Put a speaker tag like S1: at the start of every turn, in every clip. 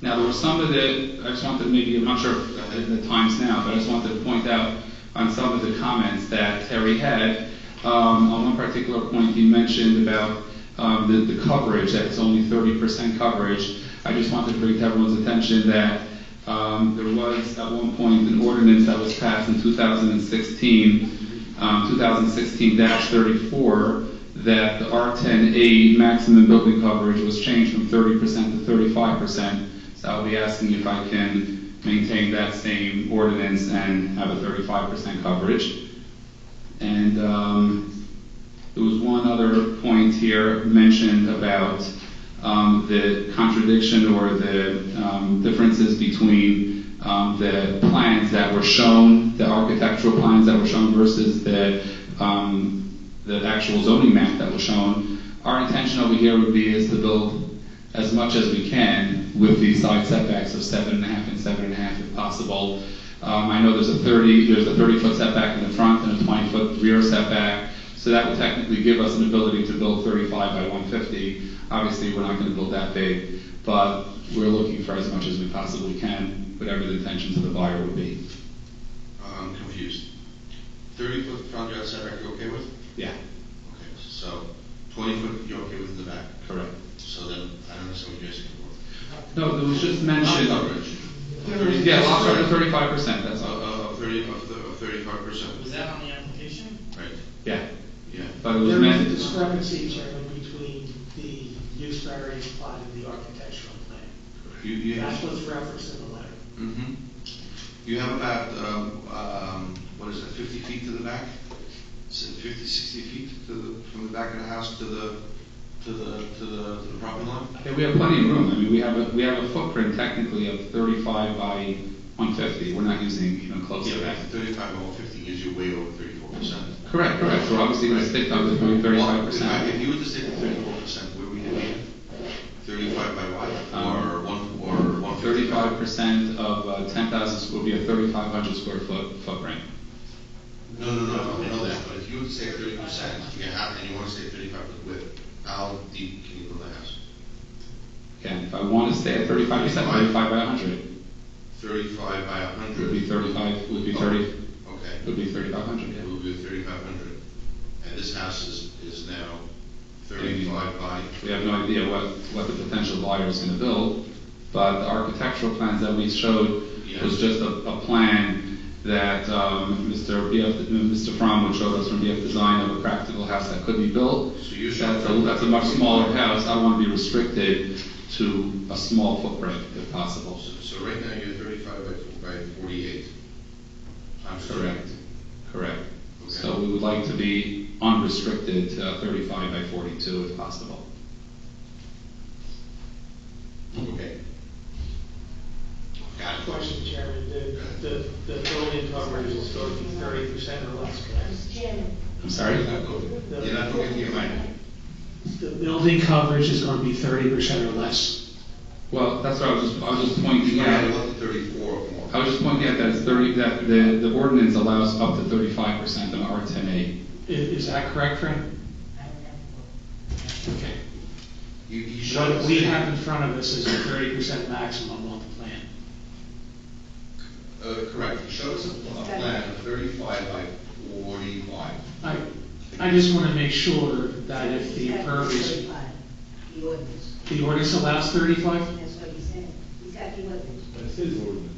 S1: Now, there was some of the, I just wanted to maybe, I'm not sure if I have the times now, but I just wanted to point out on some of the comments that Terry had, um, on one particular point, he mentioned about, um, the, the coverage, that it's only thirty percent coverage. I just wanted to bring to everyone's attention that, um, there was at one point an ordinance that was passed in two thousand and sixteen um, 2016-34 that the R10A maximum building coverage was changed from 30% to 35%. So I'll be asking if I can maintain that same ordinance and have a 35% coverage. And um, there was one other point here mentioned about um, the contradiction or the um, differences between um, the plans that were shown, the architectural plans that were shown versus the, um, the actual zoning map that was shown. Our intention over here would be is to build as much as we can with these side setbacks of seven and a half and seven and a half if possible. Um, I know there's a thirty, there's a thirty-foot setback in the front and a twenty-foot rear setback, so that would technically give us an ability to build thirty-five by one fifty. Obviously, we're not gonna build that big, but we're looking for as much as we possibly can, whatever the intentions of the buyer would be.
S2: I'm confused. Thirty foot front yard setback, you okay with?
S1: Yeah,
S2: Okay, so twenty foot, you're okay with in the back?
S1: correct.
S2: So then, I don't understand what you're asking for.
S1: No, there was just mention.
S2: Lot coverage.
S1: Yeah, lots are thirty-five percent, that's all.
S2: Of Uh, thirty, of thirty-five
S3: Was
S2: percent,
S3: that on the application?
S2: right?
S1: Yeah,
S2: Yeah.
S1: but it was
S4: There is a
S1: meant.
S4: discrepancy, Chairman, between the use variance plot and the architectural plan.
S2: You, you.
S4: That's what's referenced in the letter.
S2: hmm You have about, um, um, what is it, fifty feet to the back? Is it 50, 60 feet to the, from the back of the house to the, to the, to the, to the property line?
S1: Yeah, we have plenty of room. I mean, we have a, we have a footprint technically of thirty-five by one fifty. We're not using even close to that.
S2: Yeah, thirty-five over fifty gives you way over thirty-four percent.
S1: Correct, correct. So obviously we're sticking up to thirty-five
S2: If
S1: percent.
S2: you were to say thirty-four percent, where we would be? Thirty-five by what? Or one, or one fifty?
S1: Um, Thirty-five percent of uh, ten thousand would be a thirty-five hundred square foot footprint.
S2: No, no, no, I know that, but if you would say thirty percent, you have, and you want to say thirty-five with width, how deep can you build the house?
S1: Again, if I want to stay at thirty-five percent, thirty-five by hundred,
S2: Thirty-five by a
S1: would
S2: hundred?
S1: be thirty-five, would be thirty,
S2: Okay.
S1: would be thirty-five hundred,
S2: It
S1: yeah.
S2: will be thirty-five hundred, and this house is, is now thirty-five by,
S1: We have no idea what, what the potential buyer is gonna build, but the architectural plans that we showed was
S2: Yeah.
S1: just a, a plan that, um, Mr. BF, Mr. Fromm would show us from BF Design of a practical house that could be built.
S2: So you showed-
S1: That's a, that's a much smaller house, I wanna be restricted to a small footprint if possible.
S2: so, so right now you're thirty-five by, by forty-eight. Times three.
S1: Correct, correct.
S2: Okay.
S1: So we would like to be unrestricted to thirty-five by forty-two if possible.
S2: Okay. Got it.
S4: Question, Chairman, the, the, the building coverage is going to be thirty percent or less, correct?
S5: Jim,
S1: I'm sorry?
S2: You're not going, you're not going to your mind.
S4: The building coverage is going to be thirty percent or less.
S1: Well, that's what I was just, I was just pointing
S2: You might
S1: out.
S2: want the thirty-four or more.
S1: I was just pointing out that it's thirty, that the, the ordinance allows up to thirty-five percent on R ten A.
S4: I- Is, that correct, Frank? Okay.
S2: You, you showed.
S4: What we have in front of us is a thirty percent maximum on the plan.
S2: Uh, correct, you showed us a pl- a plan of thirty-five by forty-five.
S4: I, I just want to make sure that if the impervious,
S5: The ordinance,
S4: the ordinance allows thirty-five?
S5: that's what he said. He's got the ordinance.
S6: That's his ordinance.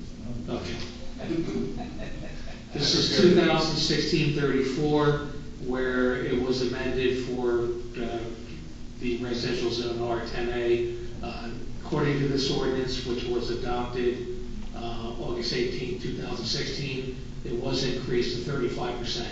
S6: not mine.
S4: Okay. This is 2016-34, where it was amended for uh, the residential zone R10A. Uh, According to this ordinance, which was adopted uh, August 18, 2016, it was increased to 35%.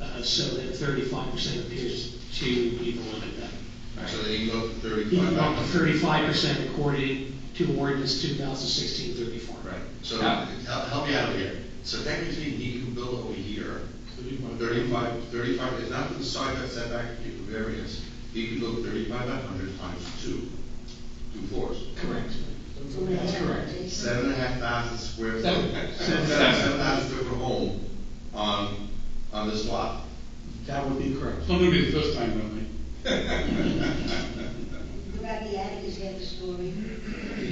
S4: Uh, So that 35% appears to be the limit then.
S2: So then you go to thirty-five.
S4: Even
S2: by
S4: up to
S2: 100.
S4: 35% according to ordinance 2016-34.
S2: So,
S1: Yeah.
S2: help help me out here. So technically, he can build over here, 35, 35, it's not the side that's setback, you can variance. He can build 35 by 100 times two, two floors.
S4: Correct.
S5: That's correct.
S2: Seven and a half thousand square foot.
S1: Seven.
S2: Seven seven thousand square foot home on, on this lot.
S4: That would be correct.
S6: It's not gonna be the first time, though.